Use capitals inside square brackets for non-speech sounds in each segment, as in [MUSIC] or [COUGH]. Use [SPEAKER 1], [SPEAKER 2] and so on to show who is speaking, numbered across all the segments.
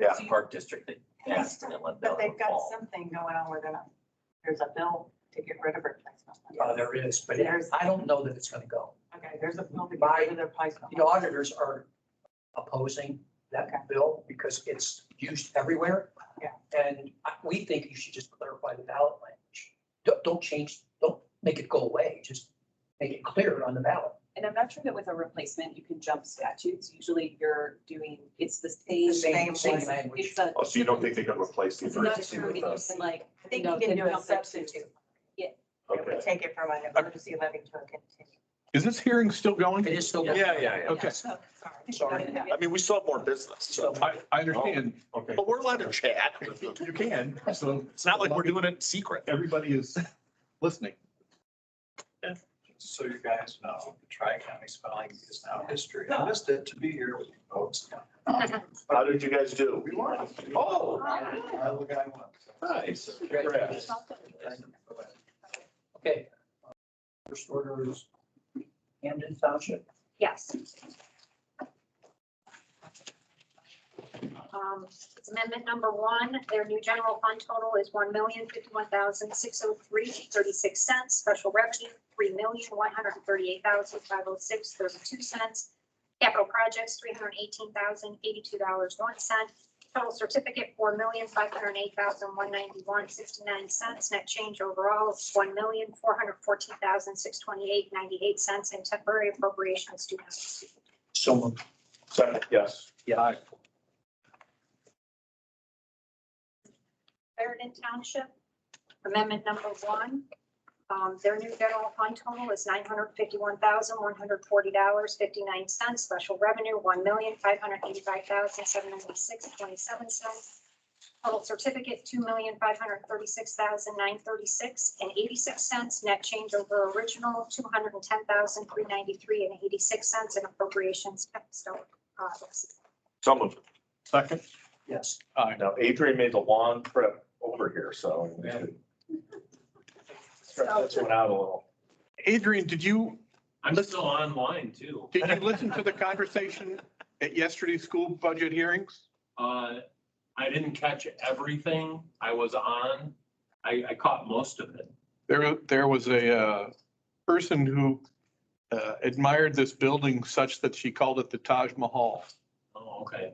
[SPEAKER 1] Yeah, Park District, they asked and let
[SPEAKER 2] But
[SPEAKER 1] that
[SPEAKER 2] they've got
[SPEAKER 1] fall.
[SPEAKER 2] something going on where they're not, there's a bill to get rid of replacement.
[SPEAKER 3] Uh, there is, but
[SPEAKER 2] There's-
[SPEAKER 3] I don't know that it's gonna go.
[SPEAKER 2] Okay, there's a bill to get rid of the replacement.
[SPEAKER 3] The auditors are opposing that bill because it's used everywhere.
[SPEAKER 2] Yeah.
[SPEAKER 3] And I- we think you should just clarify the ballot language. Don't, don't change, don't make it go away, just make it clear on the ballot.
[SPEAKER 4] And I'm not sure that with a replacement, you can jump statutes. Usually you're doing, it's the same.
[SPEAKER 3] The same,
[SPEAKER 2] same
[SPEAKER 3] same
[SPEAKER 2] one.
[SPEAKER 3] language.
[SPEAKER 4] It's a.
[SPEAKER 5] Oh, so you don't think they could replace the
[SPEAKER 4] It's not
[SPEAKER 5] emergency
[SPEAKER 4] true.
[SPEAKER 5] with
[SPEAKER 4] You
[SPEAKER 5] us?
[SPEAKER 4] can like.
[SPEAKER 2] I think
[SPEAKER 4] no,
[SPEAKER 2] you can do a
[SPEAKER 4] jump
[SPEAKER 2] substitute. It
[SPEAKER 5] Okay.
[SPEAKER 2] would take it from an emergency levy to a continuing.
[SPEAKER 6] Is this hearing still going?
[SPEAKER 3] It is still.
[SPEAKER 6] Yeah, yeah, yeah.
[SPEAKER 4] Oh,
[SPEAKER 6] Okay.
[SPEAKER 2] So, sorry.
[SPEAKER 3] Sorry.
[SPEAKER 2] Okay.
[SPEAKER 5] I mean, we still have more business, so,
[SPEAKER 6] I, I understand,
[SPEAKER 5] Oh, okay.
[SPEAKER 6] but we're allowed to chat. You can, so
[SPEAKER 5] It's not like we're doing it in secret.
[SPEAKER 6] everybody is listening.
[SPEAKER 7] So you guys know, the tri-county spelling is now history. I missed it to be here with you folks.
[SPEAKER 5] How did you guys do?
[SPEAKER 7] We won.
[SPEAKER 5] Oh,
[SPEAKER 7] I look at one.
[SPEAKER 5] nice.
[SPEAKER 3] Great. Okay. First order is Camden Township.
[SPEAKER 8] Yes. Um, it's Amendment number one, their new general fund total is one million fifty-one thousand six hundred three thirty-six cents. Special revenue, three million one hundred thirty-eight thousand five hundred six thirty-two cents. Capital projects, three hundred eighteen thousand eighty-two dollars one cent. Total certificate, four million five hundred eight thousand one ninety-one sixty-nine cents. Net change overall is one million four hundred fourteen thousand six twenty-eight ninety-eight cents. And temporary appropriations, two hundred.
[SPEAKER 3] So moved.
[SPEAKER 5] Second, yes.
[SPEAKER 3] Yeah.
[SPEAKER 8] Clarendon Township. Amendment number one, um, their new general fund total is nine hundred fifty-one thousand, one hundred forty dollars, fifty-nine cents. Special revenue, one million, five hundred eighty-five thousand, seven ninety-six, twenty-seven cents. Total certificate, two million, five hundred thirty-six thousand, nine thirty-six and eighty-six cents. Net change over original, two hundred and ten thousand, three ninety-three and eighty-six cents and appropriations. kept so, uh,
[SPEAKER 5] Some of,
[SPEAKER 6] Second,
[SPEAKER 3] Yes.
[SPEAKER 5] now Adrian made the long trip over here, so. we should Stretch this one out a little.
[SPEAKER 6] Adrian, did you,
[SPEAKER 9] I'm still online too.
[SPEAKER 6] did you listen to the conversation at yesterday's school budget hearings?
[SPEAKER 9] [LAUGHS] Uh, I didn't catch everything I was on. I, I caught most of it.
[SPEAKER 6] There, there was a uh, person who uh, admired this building such that she called it the Taj Mahal.
[SPEAKER 9] Oh, okay.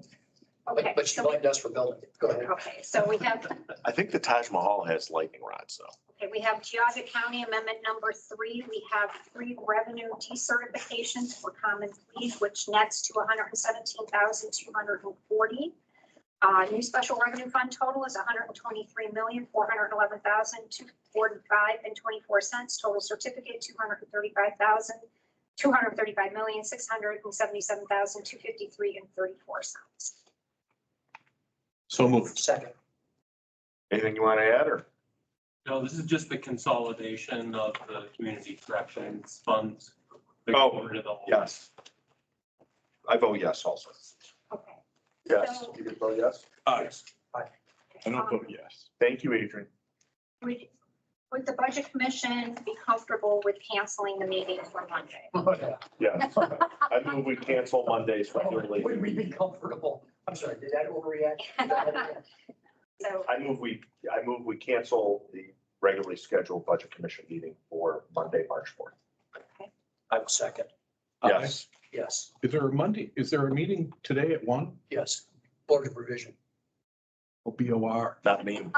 [SPEAKER 8] Okay.
[SPEAKER 3] But, but she
[SPEAKER 8] so we-
[SPEAKER 3] blamed us for building it. Go ahead.
[SPEAKER 8] Okay, so we have
[SPEAKER 5] I think the Taj Mahal has lightning rods, though.
[SPEAKER 8] Okay, we have Geogga County Amendment Number Three. We have three revenue decertifications for common pleas, which nets to one hundred and seventeen thousand two hundred and forty. Uh, new special revenue fund total is 123,411,245 and twenty-four cents. Total certificate, two hundred and thirty-five thousand, two hundred and thirty-five million, six hundred and seventy-seven thousand, two fifty-three and thirty-four cents.
[SPEAKER 6] So moved.
[SPEAKER 3] Second.
[SPEAKER 5] Anything you want to add, or?
[SPEAKER 9] No, this is just the consolidation of the community corrections funds.
[SPEAKER 5] Oh,
[SPEAKER 9] Rid of the whole-
[SPEAKER 5] Yes. I vote yes also.
[SPEAKER 8] Okay.
[SPEAKER 5] Yes, you can vote yes.
[SPEAKER 6] Aye. I
[SPEAKER 8] um,
[SPEAKER 6] don't vote yes.
[SPEAKER 5] Thank you, Adrian.
[SPEAKER 8] Would, would the budget commission be comfortable with canceling the meeting for Monday?
[SPEAKER 5] Yes. I move we cancel Monday's regularly.
[SPEAKER 3] Would we be comfortable? I'm sorry, did that overreact?
[SPEAKER 8] So,
[SPEAKER 5] I move we, I move we cancel the regularly scheduled budget commission meeting for Monday, March fourth.
[SPEAKER 3] I will second.
[SPEAKER 5] Yes.
[SPEAKER 3] Yes,
[SPEAKER 6] Is there a Monday, is there a meeting today at one?
[SPEAKER 3] yes. Board of Revision.
[SPEAKER 6] Oh, B O R.
[SPEAKER 5] Not me.
[SPEAKER 8] and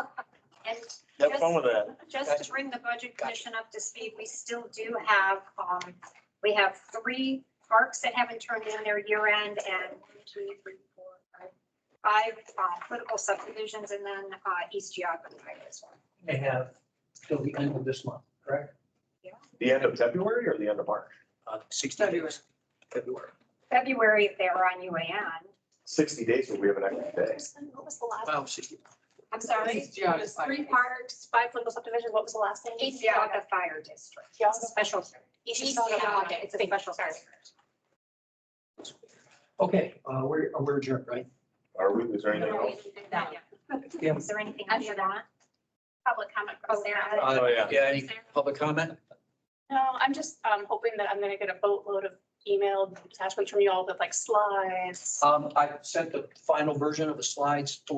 [SPEAKER 5] Have fun with that.
[SPEAKER 8] just to bring the budget commission up to speed, we still do have, um, we have three parks that haven't turned in their year end and one, two, three, four, five, five, uh, political subdivisions and then, uh, East Geogga as well.
[SPEAKER 3] They have till the end of this month, correct?
[SPEAKER 5] The end of February or the end of March?
[SPEAKER 3] Uh, sixty days, February.
[SPEAKER 8] February, if they were on UAN.
[SPEAKER 5] Sixty days, but we have an extra day.
[SPEAKER 8] What was the last?
[SPEAKER 3] Wow, sixty.
[SPEAKER 8] I'm sorry.
[SPEAKER 2] It was three parts.
[SPEAKER 8] East Yaga Fire District. It's a special. East Yaga, it's a special.
[SPEAKER 3] Okay, uh, we're, we're adjourned, right?
[SPEAKER 5] Are we, is there anything else?
[SPEAKER 3] Yeah.
[SPEAKER 8] Is there anything under that? Public comment from Sarah.
[SPEAKER 3] Uh,
[SPEAKER 5] yeah.
[SPEAKER 3] any public comment?
[SPEAKER 10] No, I'm just um, hoping that I'm going to get a boatload of emailed attachment from you all with like slides.
[SPEAKER 3] Um, I sent the final version of the slides to